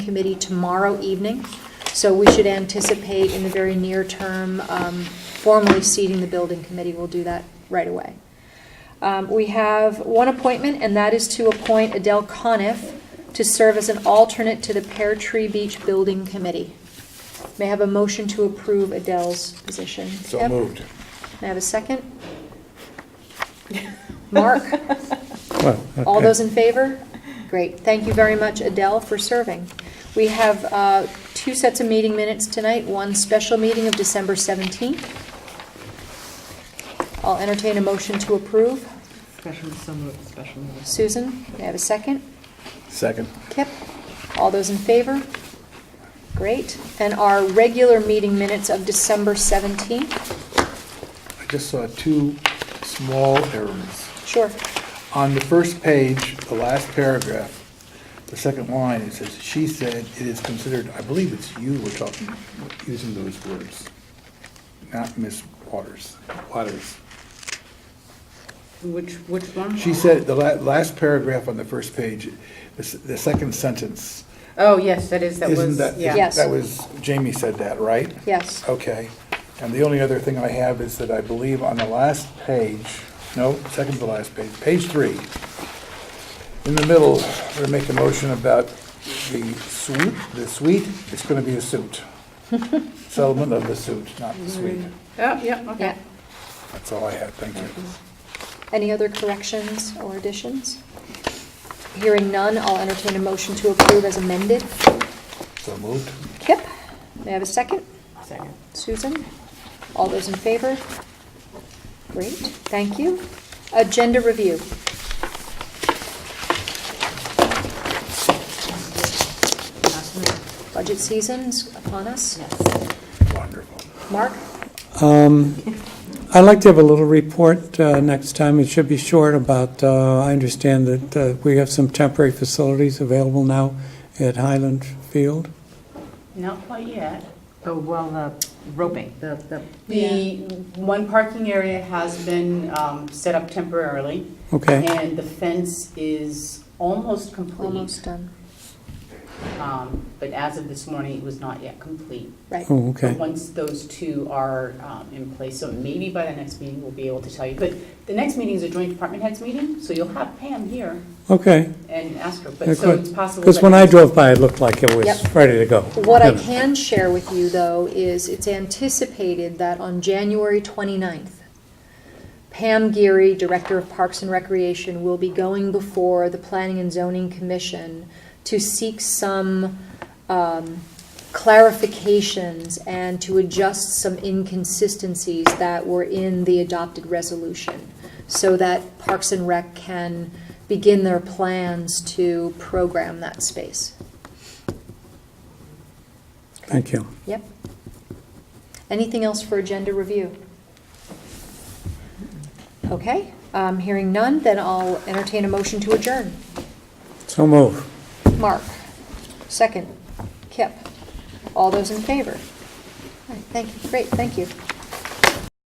committee tomorrow evening, so we should anticipate in the very near term, um, formally seating the building committee. We'll do that right away. Um, We have one appointment, and that is to appoint Adele Coniff to serve as an alternate to the Pear Tree Beach Building Committee. May I have a motion to approve Adele's position? So Deb? moved. May I have a second? Mark? Well, All okay. those in favor? Great. Thank you very much, Adele, for serving. We have uh, two sets of meeting minutes tonight, one special meeting of December 17th. I'll entertain a motion to approve. Special, so moved, special meeting. Susan, may I have a second? Second. Kip? All those in favor? Great. And our regular meeting minutes of December 17th? I just saw two small errors. Sure. On the first page, the last paragraph, the second line, it says, "She said it is considered," I believe it's you were talking, using those words, not Miss Waters, Waters. Which, which one? She said, the la- last paragraph on the first page, the s- the second sentence, Oh, yes, that is, that isn't was, that, yeah. Yes. that was, Jamie said that, right? Yes. Oh. Okay, and the only other thing I have is that I believe on the last page, no, second to last page, page three, in the middle, we're gonna make a motion about the suite, the suite, it's gonna be a suit. Settlement of the suit, not the suite. Oh, yeah, okay. Yeah. That's all I have, thank you. Any other corrections or additions? Hearing none, I'll entertain a motion to approve as amended. So moved. Kip, may I have a second? Second. Susan? All those in favor? Great, thank you. Agenda review. Last move. Budget season's upon us. Yes. Wonderful. Mark? Um, I'd like to have a little report uh, next time. It should be short about, uh, I understand that uh, we have some temporary facilities available now at Highland Field. Not quite yet. Oh, well, the roping, the, the. The, one parking area has been um, set up temporarily. Okay, And the fence is almost complete. Almost done. Um, But as of this morning, it was not yet complete. Right. oh, But okay. Once those two are um, in place, so maybe by the next meeting, we'll be able to tell you. But the next meeting is a joint department heads meeting, so you'll have Pam here Okay, and ask her. Yeah, But so good. it's possible. because that- when I drove by, it looked like it Yep. was ready to go. What I You know. can share with you, though, is it's anticipated that on January 29th, Pam Geary, Director of Parks and Recreation, will be going before the Planning and Zoning Commission to seek some um, clarifications and to adjust some inconsistencies that were in the adopted resolution, so that Parks and Rec can begin their plans to program that space. Thank you. Yep. Anything else for agenda review? Okay, um, hearing none, then I'll entertain a motion to adjourn. So move. Mark, second. Kip, all those in favor? All right, Thank you, great, thank you.